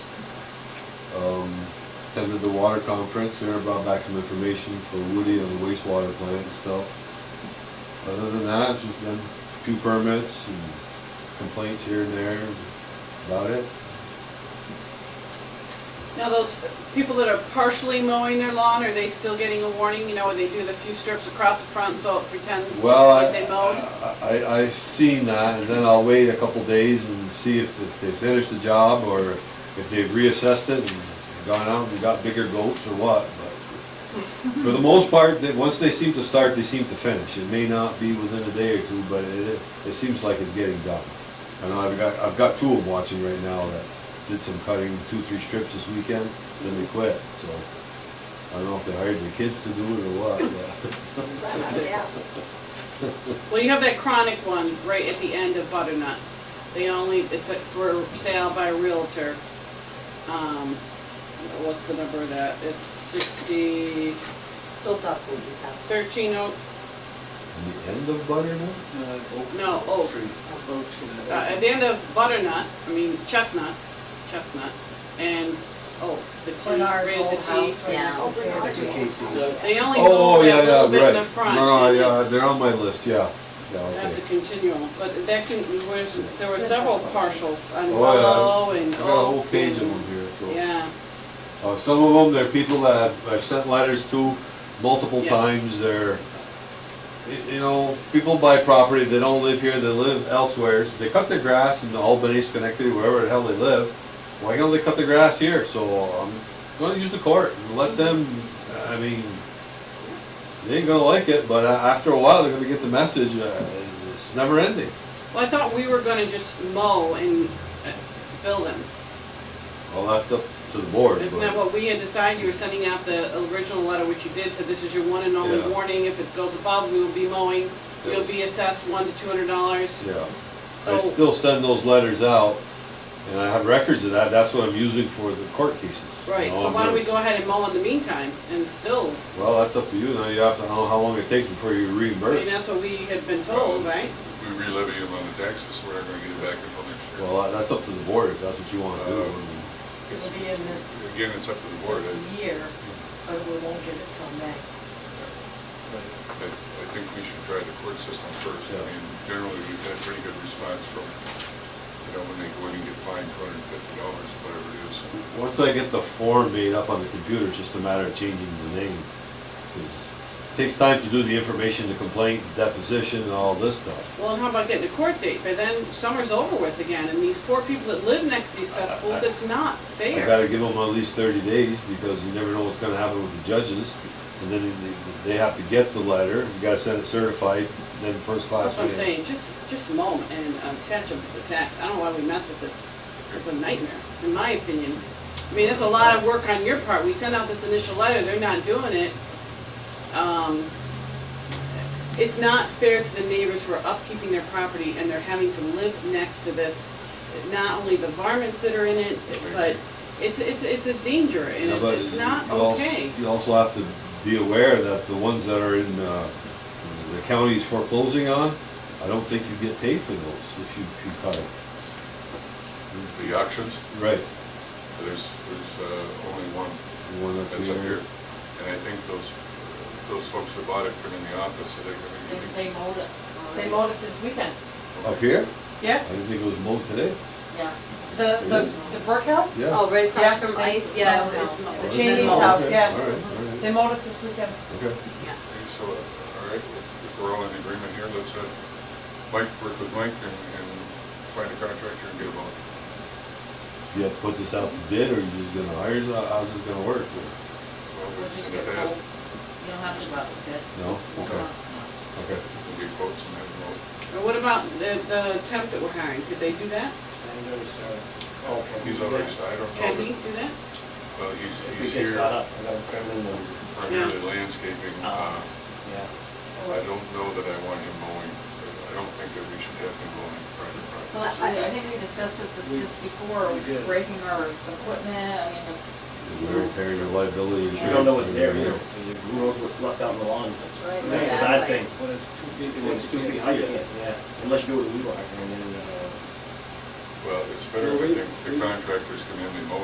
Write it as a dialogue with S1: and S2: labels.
S1: um, attended the water conference, there brought back some information for Woody on the wastewater plant and stuff. Other than that, it's just been a few permits and complaints here and there, about it.
S2: Now, those people that are partially mowing their lawn, are they still getting a warning, you know, where they do the few strips across the front so it pretends
S1: Well,
S2: that
S1: I,
S2: they mowed?
S1: I, I've seen that, and then I'll wait a couple days and see if, if they finished the job, or if they've reassessed it and gone out and got bigger goats or what, but for the most part, that, once they seem to start, they seem to finish. It may not be within a day or two, but it, it seems like it's getting done. And I've got, I've got two of them watching right now that did some cutting, two, three strips this weekend, then they quit, so. I don't know if they hired their kids to do it or what, but.
S3: Yes.
S2: Well, you have that chronic one right at the end of Butternut. They only, it's a- for sale by a Realtor. Um, what's the number of that? It's sixty,
S3: So that will be something.
S2: thirteen oh,
S1: And the end of butternut?
S4: Uh, Oak-
S2: No, Oak.
S4: Tree. Oak tree.
S2: uh, at the end of Butternut, I mean Chestnut, Chestnut, and, oh, the T,
S3: Bernard's
S2: right at
S3: old
S2: the T.
S3: house, right next to Yeah. Bernard's.
S4: That's the Casey's.
S2: They only go
S1: Oh,
S2: a
S1: yeah, yeah,
S2: little bit in
S1: right.
S2: the front.
S1: No, no,
S2: and
S1: yeah,
S2: it's-
S1: they're on my list, yeah. Yeah,
S2: That's
S1: okay.
S2: a continual, but that can, where's, there were several partials on
S1: Oh, yeah.
S2: Willow
S1: I
S2: and Oak.
S1: got a whole page of
S2: and-
S1: them here, so.
S2: Yeah,
S1: Uh, some of them, they're people that I've- I've sent letters to multiple
S2: Yes.
S1: times, they're, y- you know, people buy property, they don't live here, they live elsewhere. They cut their grass in Albany, Schenectady, wherever the hell they live. Why can't they cut the grass here? So I'm gonna use the court and let them, I mean, they ain't gonna like it, but a- after a while, they're gonna get the message, uh, it's never ending.
S2: well, I thought we were gonna just mow and uh, bill them.
S1: Well, that's up to the board.
S2: Isn't
S1: but-
S2: that what we had decided? You were sending out the original letter, which you did, said this is your one and only
S1: Yeah.
S2: warning. If it goes above, we will be mowing. You'll
S1: Yes.
S2: be assessed one to two hundred dollars.
S1: Yeah. I
S2: So,
S1: still send those letters out, and I have records of that, that's what I'm using for the court cases. you
S2: right,
S1: know,
S2: so
S1: I'm
S2: why don't we
S1: gonna-
S2: go ahead and mow in the meantime and still,
S1: Well, that's up to you, now you have to know how long it takes before you
S2: I mean,
S1: reimburse.
S2: that's what we had been told, right?
S5: We relevy them on the taxes, we're not gonna get it back until next year.
S1: Well, that's up to the board, if that's what you wanna do.
S3: It'll be in this,
S5: Again, it's up to the board. eh? I,
S3: this year, but we won't get it till May.
S5: I I think we should try the court system first. I
S1: Yeah.
S5: mean, generally, we've had pretty good response from, you know, when they go in and get fined two hundred and fifty dollars, whatever it is.
S1: Once I get the form made up on the computer, it's just a matter of changing the name. 'Cause It Takes time to do the information, the complaint, deposition, and all this stuff.
S2: Well, and how about getting a court date? But then summer's over with again, and these poor people that live next to these cesspools, it's not
S1: I
S2: fair.
S1: gotta give them at least thirty days, because you never know what's gonna happen with the judges. And then they- they have to get the letter, you gotta send it certified, then first class.
S2: That's what I'm
S1: in.
S2: saying, just, just mow 'em and uh, attach them to the tax. I don't know why we mess with this. It's a nightmare, in my opinion. I mean, it's a lot of work on your part. We send out this initial letter, they're not doing it. Um, It's not fair to the neighbors who are upkeeping their property and they're having to live next to this. Not only the varmints that are in it, but it's, it's, it's a danger and
S1: Yeah, but
S2: it's, it's not
S1: you also-
S2: okay.
S1: You also have to be aware that the ones that are in, uh, the counties foreclosing on, I don't think you get paid for those if you, if you cut it. Mm-hmm.
S5: The auctions,
S1: Right.
S5: there's, there's uh, only one
S1: The one up
S5: that's up
S1: here.
S5: here. And I think those, those folks that bought it put in the office, so they're gonna
S3: They-
S5: get
S3: They mowed it. They mowed it this weekend.
S1: Up here? I
S3: Yeah,
S1: didn't think it was mowed today.
S3: yeah.
S6: The, the, the brick house?
S1: Yeah.
S6: Oh, right
S3: Yeah.
S6: across from Ice, yeah, it's.
S3: The
S1: Oh,
S6: it's been
S3: Cheney's
S1: okay.
S6: mowed.
S3: house, yeah.
S1: All right, all right,
S6: They mowed it this weekend.
S1: okay.
S5: Okay, So, uh, all right, if if we're all in agreement here, let's have Mike work with Mike and, and find a contractor and get them all.
S1: Do you have to put this out to bid, or you just gonna hire, uh, how's this gonna work?
S5: Well,
S3: We'll just
S5: we'll
S3: get
S5: have to ask-
S3: quotes. You don't have to go out with it.
S1: No? Okay,
S3: No.
S1: okay.
S5: We'll get quotes and have them all.
S2: And what about the, the temp that we're hiring? Could they do that?
S4: And there's, uh, oh, okay.
S5: He's already, I don't
S2: Can he
S5: know,
S2: do that?
S5: but, well, he's,
S4: If
S5: he's
S4: it gets
S5: here,
S4: caught up, I gotta trim in the,
S5: primarily landscaping.
S4: Oh.
S5: Uh,
S4: yeah.
S5: I don't know that I want him mowing, I don't think that we should have him mowing private property.
S3: Well, I, I think we discussed it this, this before,
S4: We did.
S3: breaking our equipment, I mean,
S1: We're carrying your liability
S4: You
S1: insurance.
S4: don't know what's
S1: and
S4: there, you know,
S1: everything.
S4: who knows what's left out in the lawn, that's,
S3: Right,
S4: that's a bad
S6: exactly.
S4: thing.
S7: When it's too big,
S4: When it's too big, I can't, yeah, unless you do it with weed whacker, and then, uh,
S5: Well, it's better
S7: Well,
S5: when
S7: we-
S5: the the
S7: we-
S5: contractors come in, they mow